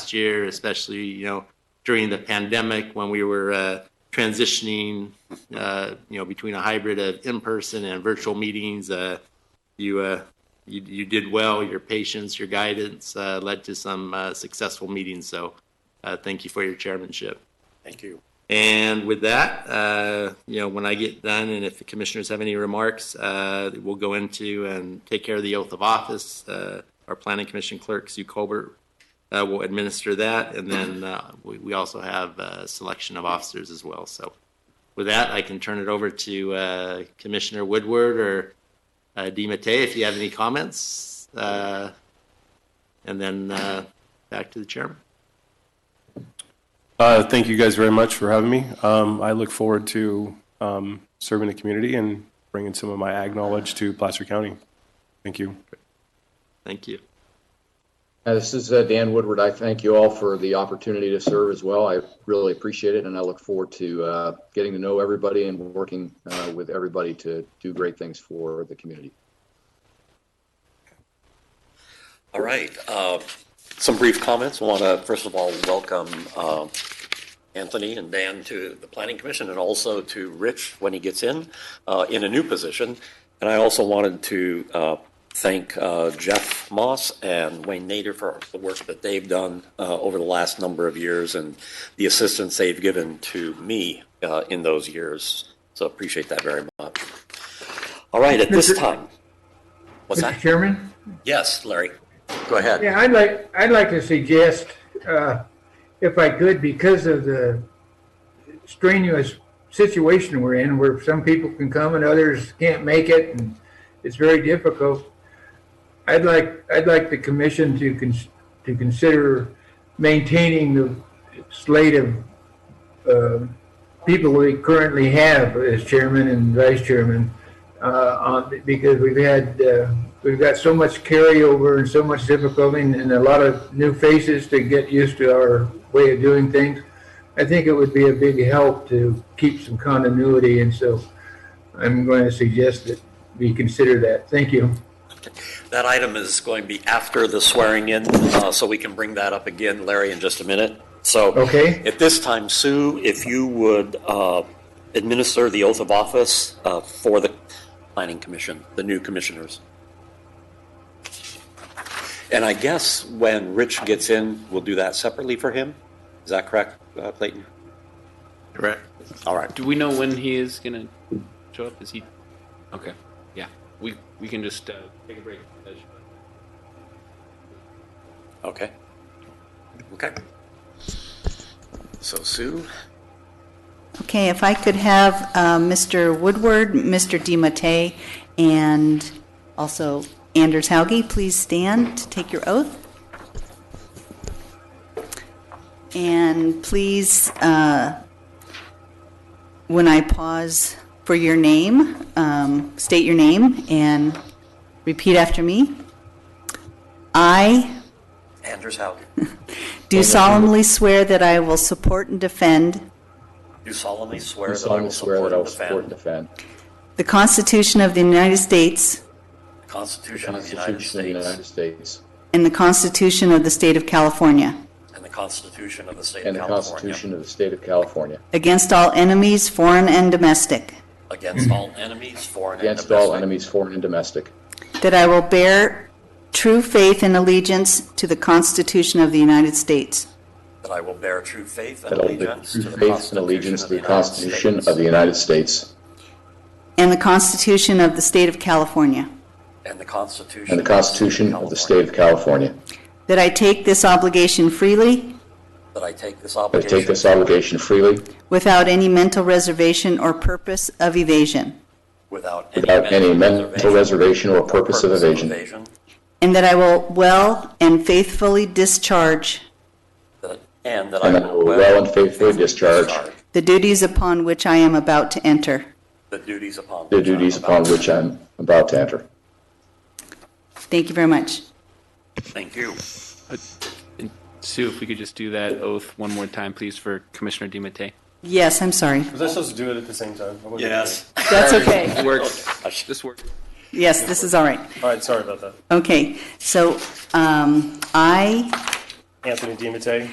last year, especially you know during the pandemic when we were uh, transitioning, uh, you know, between a hybrid of in-person and virtual meetings. Uh, you, uh, you you did well. Your patience, your guidance uh, led to some uh, successful meetings. So, uh, thank you for your chairmanship. Thank you. And with that, uh, you know, when I get done, and if the commissioners have any remarks, uh, we'll go into and take care of the oath of office. Uh, our planning commission clerk, Sue Colbert, uh, will administer that, and then uh, we, we also have uh, selection of officers as well. So, with that, I can turn it over to uh, Commissioner Woodward or uh, DiMattei if you have any comments, uh, and then uh, back to the chairman. Uh, Thank you guys very much for having me. Um, I look forward to um, serving the community and bringing some of my ag knowledge to Placer County. Thank you. Thank you. Uh, This is uh, Dan Woodward. I thank you all for the opportunity to serve as well. I really appreciate it, and I look forward to uh, getting to know everybody and working uh, with everybody to do great things for the community. All right. uh, Some brief comments. I Want to, first of all, welcome uh, Anthony and Dan to the Planning Commission and also to Rich when he gets in, uh, in a new position. And I also wanted to uh, thank uh, Jeff Moss and Wayne Nader for the work that they've done uh, over the last number of years and the assistance they've given to me uh, in those years. So appreciate that very much. All right, at this Mr. time. What's Mr. that? Chairman? Yes, Larry. Go ahead. Yeah, I'd like, I'd like to suggest, uh, if I could, because of the strenuous situation we're in, where some people can come and others can't make it, and it's very difficult. I'd like, I'd like the commission to cons- to consider maintaining the slate of, uh, people we currently have as chairman and vice chairman, uh, on, because we've had, uh, we've got so much carryover and so much difficulty and, and a lot of new faces to get used to our way of doing things. I think it would be a big help to keep some continuity, and so I'm going to suggest that we consider that. Thank you. That item is going to be after the swearing in, uh, so we can bring that up again, Larry, in just a minute. So. Okay. At this time, Sue, if you would uh, administer the oath of office uh, for the planning commission, the new commissioners. And I guess when Rich gets in, we'll do that separately for him. Is that correct, uh, Clayton? Correct. All right. Do we know when he is gonna show up? Is he? Okay. Yeah. We we can just uh, take a break. Okay. Okay. So Sue, Okay, if I could have uh, Mr. Woodward, Mr. DiMattei, and also Anders Hauge, please stand to take your oath. And please, uh, when I pause for your name, um, state your name and repeat after me. I Anders Haugen, do solemnly swear that I will support and defend do solemnly swear I that I solemnly will swear support that I and will support and defend defend the Constitution of the United States the Constitution of the United Constitution of the United States States and the Constitution of the State of California, and the Constitution of the State of and the California Constitution of the State of California, against all enemies, foreign and domestic, against all enemies, foreign and against all domestic, enemies, foreign and domestic, that I will bear true faith and allegiance to the Constitution of the United States that I will bear true faith and that I will bear allegiance true to the faith and Constitution allegiance of to the the United Constitution of the States United States, and the Constitution of the State of California, and the Constitution and the of the State Constitution of the State of California, that I take this obligation freely California, that I take this that I take this obligation obligation freely, without any mental reservation or purpose of evasion, without without any any mental reservation or purpose of evasion, and that I will well and faithfully discharge that- And that And I will well and faithfully discharge the duties upon which I am about to enter. the duties upon the which I am duties about upon to- which I'm about to enter. Thank you very much. Thank you. Sue, if we could just do that oath one more time, please, for Commissioner DiMattei. Yes, I'm sorry. Was I supposed to do it at the same time? That's okay. Works. This works. Yes, this is all right. All right, sorry about that. Okay, so um, I Anthony DiMattei.